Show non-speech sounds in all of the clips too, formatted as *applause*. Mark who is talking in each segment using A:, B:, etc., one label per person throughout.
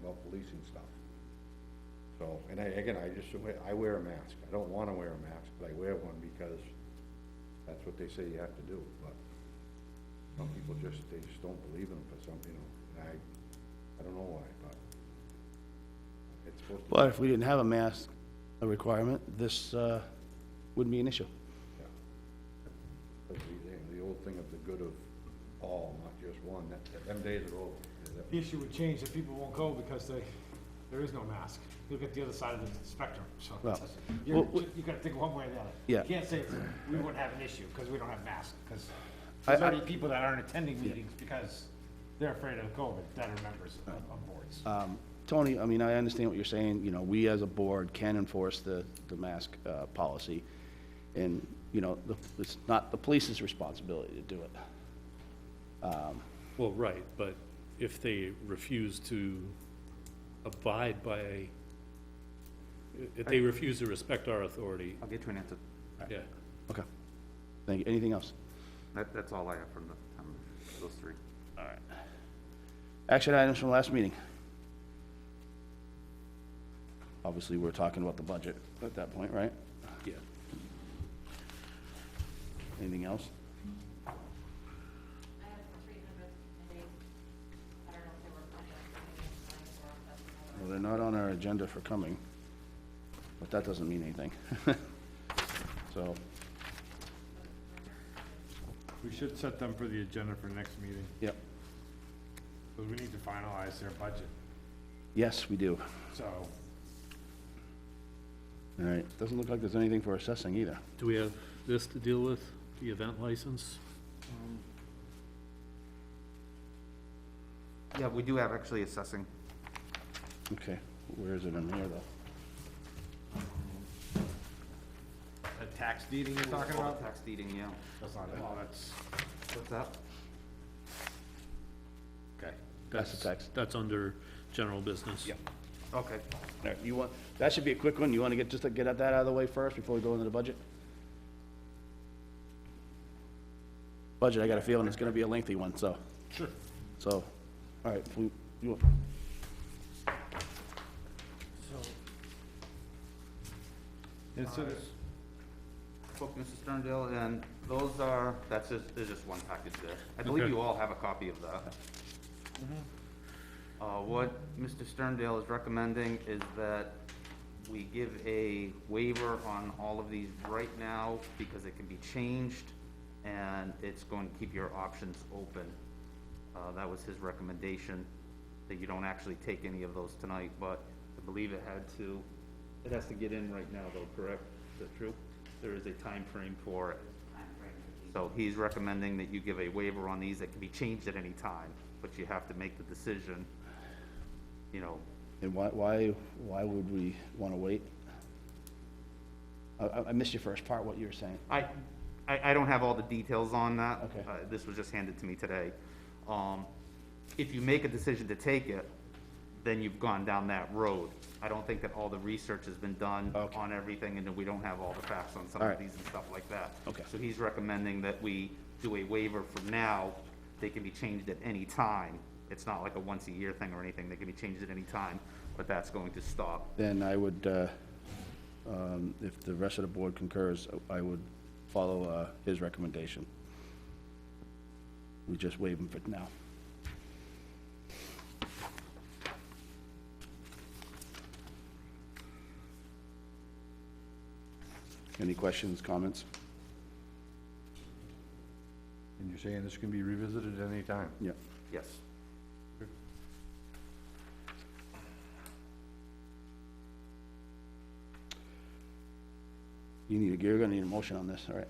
A: policing stuff. So, and I, again, I just, I wear a mask, I don't wanna wear a mask, but I wear one because that's what they say you have to do, but some people just, they just don't believe in them for some, you know, and I, I don't know why, but it's supposed to,
B: But if we didn't have a mask a requirement, this uh, wouldn't be an issue.
A: yeah. But the, the old thing of the good of all, not just one, that, them days are over. That-
C: The issue would change if people won't go because they, there is no mask. Look at the other side of the spectrum, so.
B: Well,
C: You're,
B: well,
C: you gotta think one way or the other.
B: Yeah.
C: You can't say it's- we wouldn't have an issue because we don't have masks, because
B: I-
C: there's
B: I-
C: already people that aren't attending meetings because they're afraid of COVID that are members of, of boards.
B: Um, Tony, I mean, I understand what you're saying, you know, we as a board can enforce the, the mask uh, policy, and, you know, the- it's not the police's responsibility to do it.
D: Well, right, but if they refuse to abide by, if they refuse to respect our authority,
E: I'll get you an answer.
D: yeah.
B: Okay. Thank you. Anything else?
E: That, that's all I have from the, town manager, those three.
B: Action items from last meeting. Obviously, we're talking about the budget at that point, right?
D: Yeah.
B: Anything else?
F: I have three hundred and eight, I don't know if they were planning on coming in tonight or if that's another.
B: Well, they're not on our agenda for coming, but that doesn't mean anything. *laughs* So,
C: We should set them for the agenda for next meeting,
B: yep,
C: because we need to finalize their budget,
B: yes, we do.
C: so.
B: All right, doesn't look like there's anything for assessing either.
D: Do we have this to deal with, the event license?
E: Yeah, we do have actually assessing.
B: Okay, where is it in here, though?
C: The tax deeding you're talking
E: All the
C: about?
E: Tax deeding, yeah.
C: That's not, oh, that's,
E: What's that?
C: okay.
B: That's the tax.
D: That's under general business.
B: Yep.
E: Okay.
B: All right, you want, that should be a quick one, you want to get, just to get that out of the way first before we go into the budget? Budget, I got a feeling it's going to be a lengthy one, so,
C: Sure.
B: so, all right, if we, you want,
C: And so there's,
E: Spoke to Mr. Sterndale, and those are, that's just, there's just one package there. I believe
D: Okay.
E: you all have a copy of that. Uh, what Mr. Sterndale is recommending is that we give a waiver on all of these right now because it can be changed and it's going to keep your options open. Uh, that was his recommendation, that you don't actually take any of those tonight, but I believe it had to, it has to get in right now though, correct? Is that true? There is a time frame for it. So he's recommending that you give a waiver on these that can be changed at any time, but you have to make the decision, you know,
B: and why, why, why would we want to wait? I- I, I missed your first part, what you were saying.
E: I, I, I don't have all the details on that.
B: Okay.
E: Uh, This was just handed to me today. Um, if you make a decision to take it, then you've gone down that road. I don't think that all the research has been done
B: Okay.
E: on everything, and that we don't have all the facts on some
B: All
E: of
B: right.
E: these and stuff like that.
B: Okay.
E: So he's recommending that we do a waiver for now. They can be changed at any time. It's not like a once-a-year thing or anything. They can be changed at any time, but that's going to stop
B: Then I would, uh, um, if the rest of the board concurs, I would follow uh, his recommendation. We just waive him for now. Any questions, comments?
A: And you're saying this can be revisited at any time?
B: Yeah.
E: Yes.
B: You need, a- you're gonna need a motion on this, all right?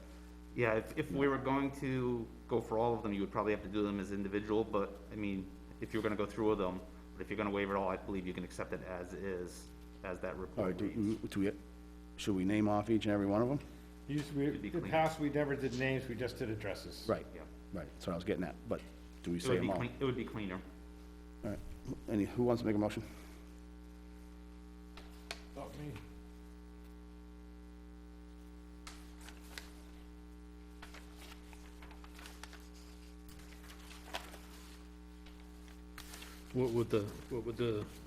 E: Yeah, if, if we were going to go for all of them, you would probably have to do them as individual, but, I mean, if you're gonna go through with them, but if you're gonna waive it all, I believe you can accept it as is, as that
B: All right,
E: report reads.
B: Oh, do, do we, should we name off each and every one of them?
C: Used to be,
E: be
C: in the
E: clean.
C: past, we never did names, we just did addresses.
B: Right,
E: Yeah.
B: right, that's what I was getting at, but do we
E: It
B: say
E: would
B: them
E: be
B: all?
E: clean, it would be cleaner.
B: All right, any, who wants to make a motion?
C: Not me.
D: What would the, what would the